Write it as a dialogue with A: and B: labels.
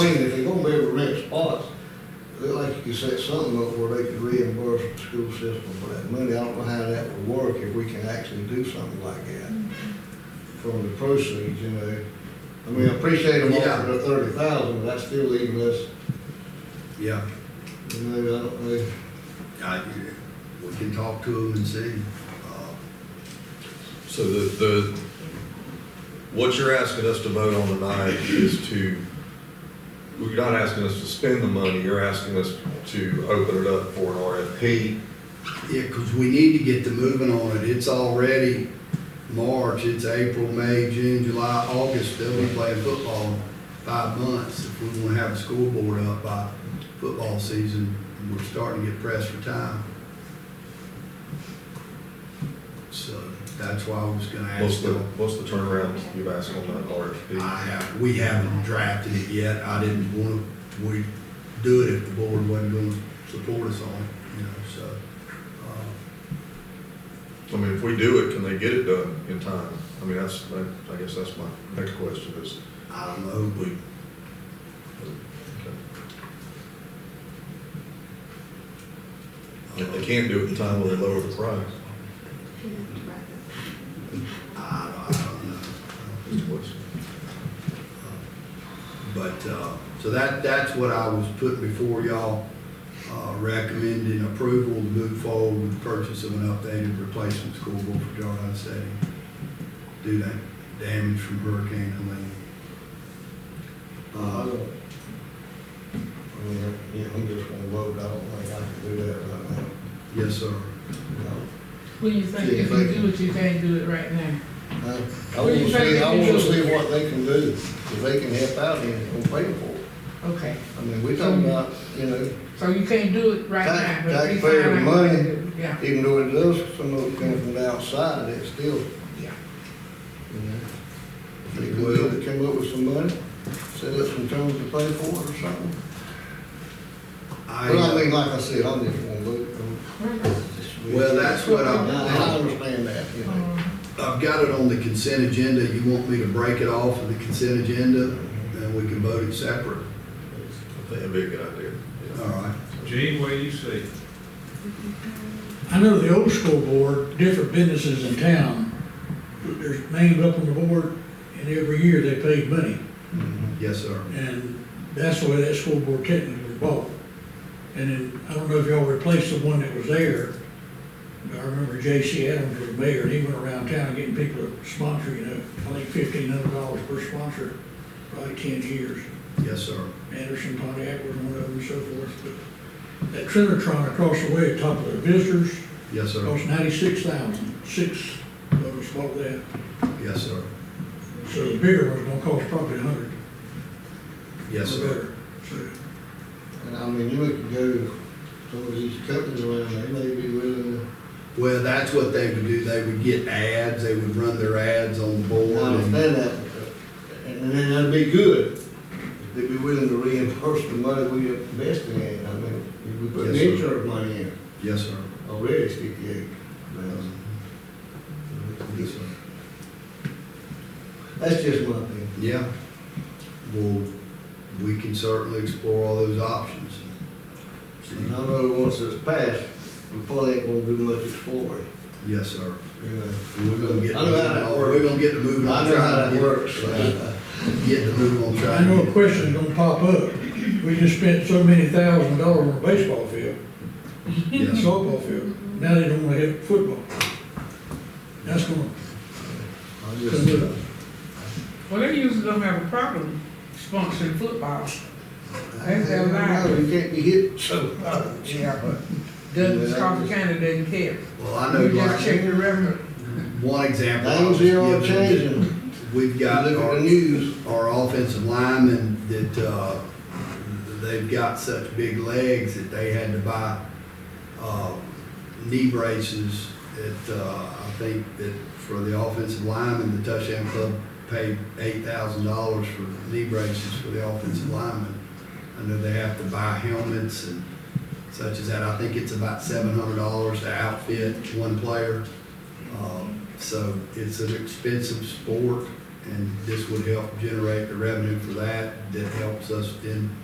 A: you set something up where they could reimburse the school system for that money. I don't know how that would work if we can actually do something like that from the proceeds, you know. I mean, I appreciate them
B: Yeah.
A: offering the thirty thousand, but that's still leaving us,
B: Yeah,
A: you know, I don't know.
B: I, we can talk to them and see. Uh,
C: So the, the, what you're asking us to vote on tonight is to, you're not asking us to spend the money, you're asking us to open it up for an RFP.
B: Yeah, because we need to get the moving on it. It's already March, it's April, May, June, July, August. They'll be playing football in five months. If we want to have the school board up by football season, we're starting to get pressed for time. So that's why I was gonna
C: What's
B: ask
C: the,
B: them.
C: what's the turnaround you've asked on that RFP?
B: I have, we haven't drafted it yet. I didn't want to, we do it if the board wasn't going to support us on it, you know, so. uh,
C: I mean, if we do it, can they get it done in time? I mean, that's, that- I guess that's my next question is.
B: I don't know, uh, we,
C: If they can't do it in time, will they lower the price?
B: I don't, I don't know.
C: Is the question.
B: But, uh, so that, that's what I was putting before y'all, uh, recommending approval to move forward with the purchase of an updated replacement school board for Jarvis Stadium. Do that damage from Hurricane Helene.
A: I
B: Uh,
A: don't. I mean, yeah, I'm just gonna vote, I don't think I can do that right now.
B: yes, sir.
A: No.
D: What do you think, if you do it, you can't do it right now?
A: I I
D: What do
A: wanna
D: you
A: see,
D: think
A: I
D: they can
A: wanna
D: do?
A: see what they can do, if they can help out and and pay for it.
D: Okay,
A: I mean, we talking about, you know,
D: so you can't do it right now?
A: Tax-
D: but if you
A: taxpayer
D: find out
A: money.
D: what to do, Yeah,
A: even though it does, some of it comes from the outside, it's still,
D: yeah.
A: you know. If they could do it, come up with some money, set up some terms to pay for it or something. But I mean,
B: I,
A: like I said, I'm just gonna vote. I'm just-
B: well, that's what
A: I, I
B: I'm,
A: understand that, you know.
D: Um,
B: uh, I've got it on the consent agenda. You want me to break it off of the consent agenda? Then we can vote it separate.
C: I think that'd be a good idea.
B: All right.
E: Gene, what do you see?
F: I know the old school board, different businesses in town, there's names up on the board, and every year they paid money.
B: Yes, sir.
F: And that's the way that school board technically was bought. And then, I don't know if y'all replaced the one that was there. I remember J.C. Adams was mayor, and he went around town getting people to sponsor, you know, I think fifteen hundred dollars per sponsor, probably ten years.
B: Yes, sir.
F: Anderson Pontiac was one of them and so forth. But That Trinitron across the way, at top of the visitors,
B: Yes, sir.
F: Cost ninety-six thousand, six of us bought that,
B: Yes, sir.
F: so the bigger one's gonna cost probably a hundred.
B: Yes,
F: or
B: sir.
F: better. So,
A: And I mean, you could go, some of these companies around, they may be willing to
B: Well, that's what they would do. They would get ads, they would run their ads on the
A: I
B: board. and-
A: understand that, and then that'd be good, if they'd be willing to reimburse the money we invested in, I mean, if we put
B: Yes, sir.
A: insurance money in,
B: Yes, sir.
A: already it's fifty-eight thousand.
B: Yes, sir.
A: That's just my opinion.
B: Yeah. Well, we can certainly explore all those options.
A: And I know once it's passed, we probably ain't gonna do much exploring,
B: Yes, sir.
A: you know.
B: We're gonna get,
A: I know how that
B: we're gonna get the
A: I
B: move on.
A: know how that
B: trying to
A: works,
B: get- uh,
A: so,
B: Get the move on
F: I
B: trying. to
F: know a
B: get-
F: question's gonna pop up, we just spent so many thousand dollars on a baseball field,
B: Yes, sir.
F: softball field, now they don't wanna have football. That's gonna,
A: I just, uh,
D: Well, they usually don't have a problem sponsoring football.
B: uh,
A: I
D: Ain't that right?
A: know, you can't be hit so hard.
D: Douglas Coffee County doesn't care.
B: Well, I know
D: You just
B: like
D: check the revenue.
B: one example. I
A: Things
B: was
A: here are
B: given,
A: changing,
B: We've
A: you
B: got.
A: look at
B: our-
A: the news,
B: our offensive linemen that, uh, they've got such big legs that they had to buy, uh, knee braces that, uh, I think that for the offensive linemen, the touchdown club paid eight thousand dollars for knee braces for the offensive linemen. I know they have to buy helmets and such as that. I think it's about seven hundred dollars to outfit one player. Um, So it's an expensive sport, and this would help generate the revenue for that, that helps us then